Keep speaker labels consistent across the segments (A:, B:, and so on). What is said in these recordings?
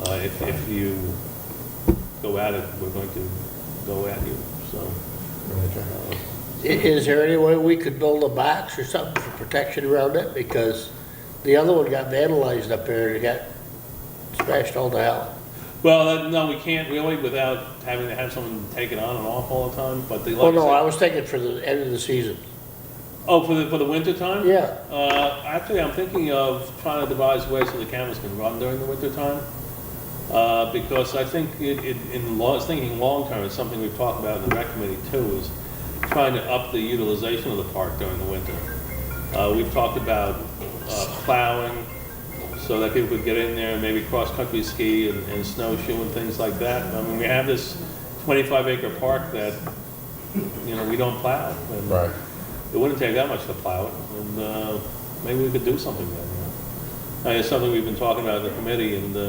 A: Uh, if, if you go at it, we're going to go at you, so. uh,
B: I- Is there any way we could build a box or something for protection around it? Because the other one got vandalized up there, and it got smashed all to hell.
A: Well, uh, no, we can't really without having to have someone take it on and off all the time, but they like.
B: Well, Oh, no,
A: I
B: I
A: said-
B: was thinking for the end of the season.
A: Oh, for the, for the winter time?
B: Yeah,
A: Uh, actually, I'm thinking of trying to devise ways so the cameras can run during the winter time. Uh, because I think it, it, in law, thinking long-term, it's something we've talked about in the rec committee too, is trying to up the utilization of the park during the winter. Uh, we've talked about, uh, plowing, so that people could get in there and maybe cross-country ski and, and snowshoe and things like that. I mean, we have this twenty-five acre park that, you know, we don't plow. and-
C: Right.
A: it wouldn't take that much to plow it, and uh, maybe we could do something there. you know. Uh, It's something we've been talking about in the committee, and uh,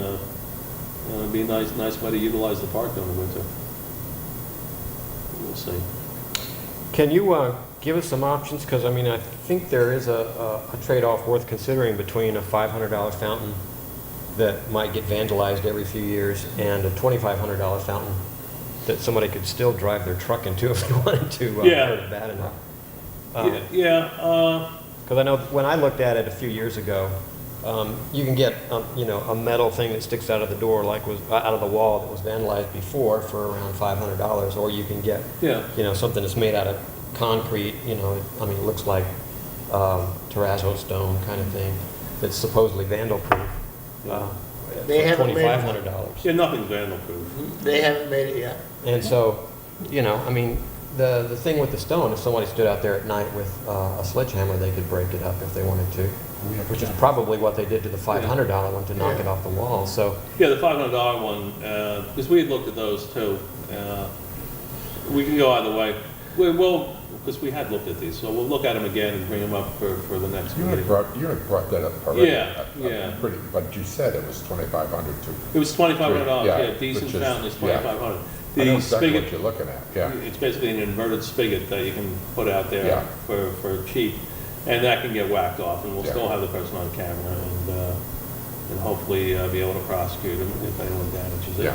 A: you know, it'd be a nice, nice way to utilize the park during the winter. We'll see.
D: Can you uh, give us some options? Because, I mean, I think there is a- a a trade-off worth considering between a $500 fountain that might get vandalized every few years and a $2,500 fountain that somebody could still drive their truck into if they wanted to. uh,
A: Yeah.
D: hurt it Bad enough. Uh-huh.
A: Yeah, Yeah, uh,
D: Because I know when I looked at it a few years ago, um, you can get, um, you know, a metal thing that sticks out of the door like was, uh, out of the wall that was vandalized before for around $500, or you can get
A: yeah,
D: you know, something that's made out of concrete, you know, it- I mean, it looks like um, terrazzo stone kind of thing, that's supposedly vandal-proof. uh,
B: They
D: for
B: haven't made-
D: $2,500.
A: yeah, nothing's vandal-proof.
B: they haven't made it yet.
D: And so, you know, I mean, the, the thing with the stone, if somebody stood out there at night with uh, a sledgehammer, they could break it up if they wanted to, which is probably what they did to the $500 one to knock it off the wall, so.
A: Yeah, the five hundred dollar one, because we had looked at those too. Uh, We can go either way. We will, because we had looked at these, so we'll look at them again and bring them up for, for the next
C: You had
A: meeting.
C: brought, you had brought that up already.
A: Yeah,
C: I- I'm
A: yeah.
C: Pretty, but you said it was twenty-five hundred to,
A: It was twenty-five hundred dollars,
C: Yeah,
A: yeah, decent
C: which is-
A: fountain is
C: yeah.
A: twenty-five hundred.
C: I know
A: The
C: exactly what
A: spigot,
C: you're looking at, yeah.
A: it's basically an inverted spigot that you can put out
C: Yeah.
A: there for, for cheap, and that can get whacked off, and we'll
C: Yeah.
A: still have the person on camera, and, uh, and hopefully uh, be able to prosecute them if anyone damages it.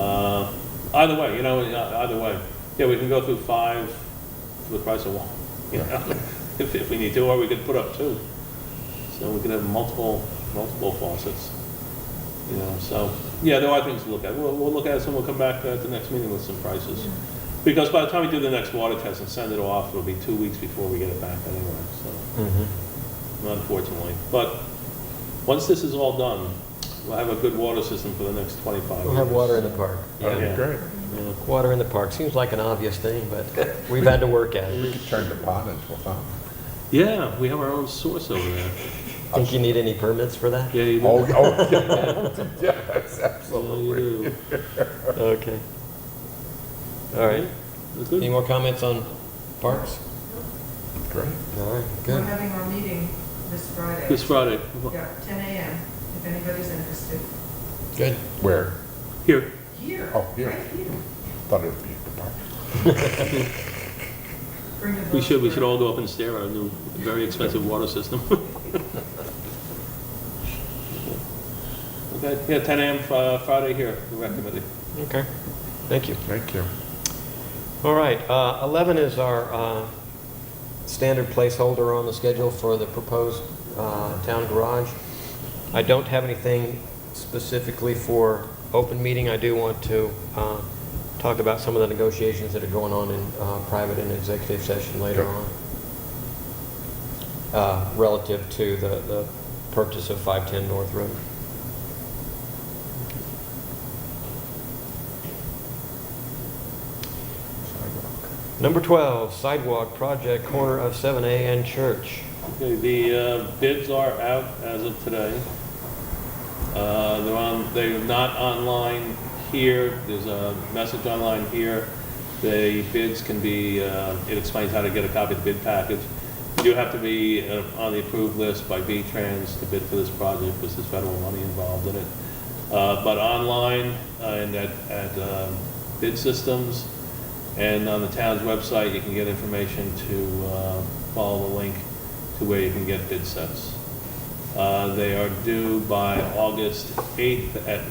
A: Uh, Either way, you know, uh, either way, yeah, we can go through five for the price of one, you know, if, if we need to, or we could put up two. So we could have multiple, multiple faucets, you know, so, yeah, there are things to look at. We'll, we'll look at it, and we'll come back at the next meeting with some prices. Because by the time we do the next water test and send it off, it'll be two weeks before we get it back anyway, so, unfortunately. But, once this is all done, we'll have a good water system for the next twenty-five years.
D: We'll have water in the park.
C: That'd
A: Yeah.
C: be great.
A: Yeah.
D: Water in the park, seems like an obvious thing, but we've had to work at it.
C: We could turn the pond into a fountain.
A: Yeah, we have our own source over there.
D: Think you need any permits for that?
A: Yeah, you do.
C: Oh, oh, yeah, yes,
A: Yeah, you
C: absolutely.
A: do.
D: Okay. All right.
A: Yeah, good.
D: Any more comments on parks?
C: Great.
D: All right,
E: We're
D: good.
E: having our meeting this Friday.
A: This Friday,
E: Yeah, 10 a.m., if anybody's interested.
D: Good.
C: Where?
A: here,
E: Here.
C: Oh, here.
E: Right here.
C: Thought it'd be the park.
E: Bring the
A: we should, we
E: bus
A: should all go up and stare at our new, very expensive water system. Okay, yeah, ten AM Fri- uh, Friday here, the rec committee.
D: Okay. Thank you.
C: Thank you.
D: All right, uh, 11 is our uh, standard placeholder on the schedule for the proposed uh, town garage. I don't have anything specifically for open meeting. I do want to uh, talk about some of the negotiations that are going on in uh, private and executive session later
C: Sure.
D: on. uh, Relative to the, the purchase of 510 North Road.
C: Sidewalk.
D: Number 12, sidewalk project corner of 7A and Church.
A: Okay, the uh, bids are out as of today. Uh, They're on, they're not online here, there's a message online here. The bids can be, uh, it explains how to get a copy of the bid package. You do have to be uh, on the approved list by V-Trans to bid for this project, because there's federal money involved in it. Uh, But online uh, and at, at um, bid systems and on the town's website, you can get information to uh, follow the link to where you can get bid sets. Uh, They are due by August 8th at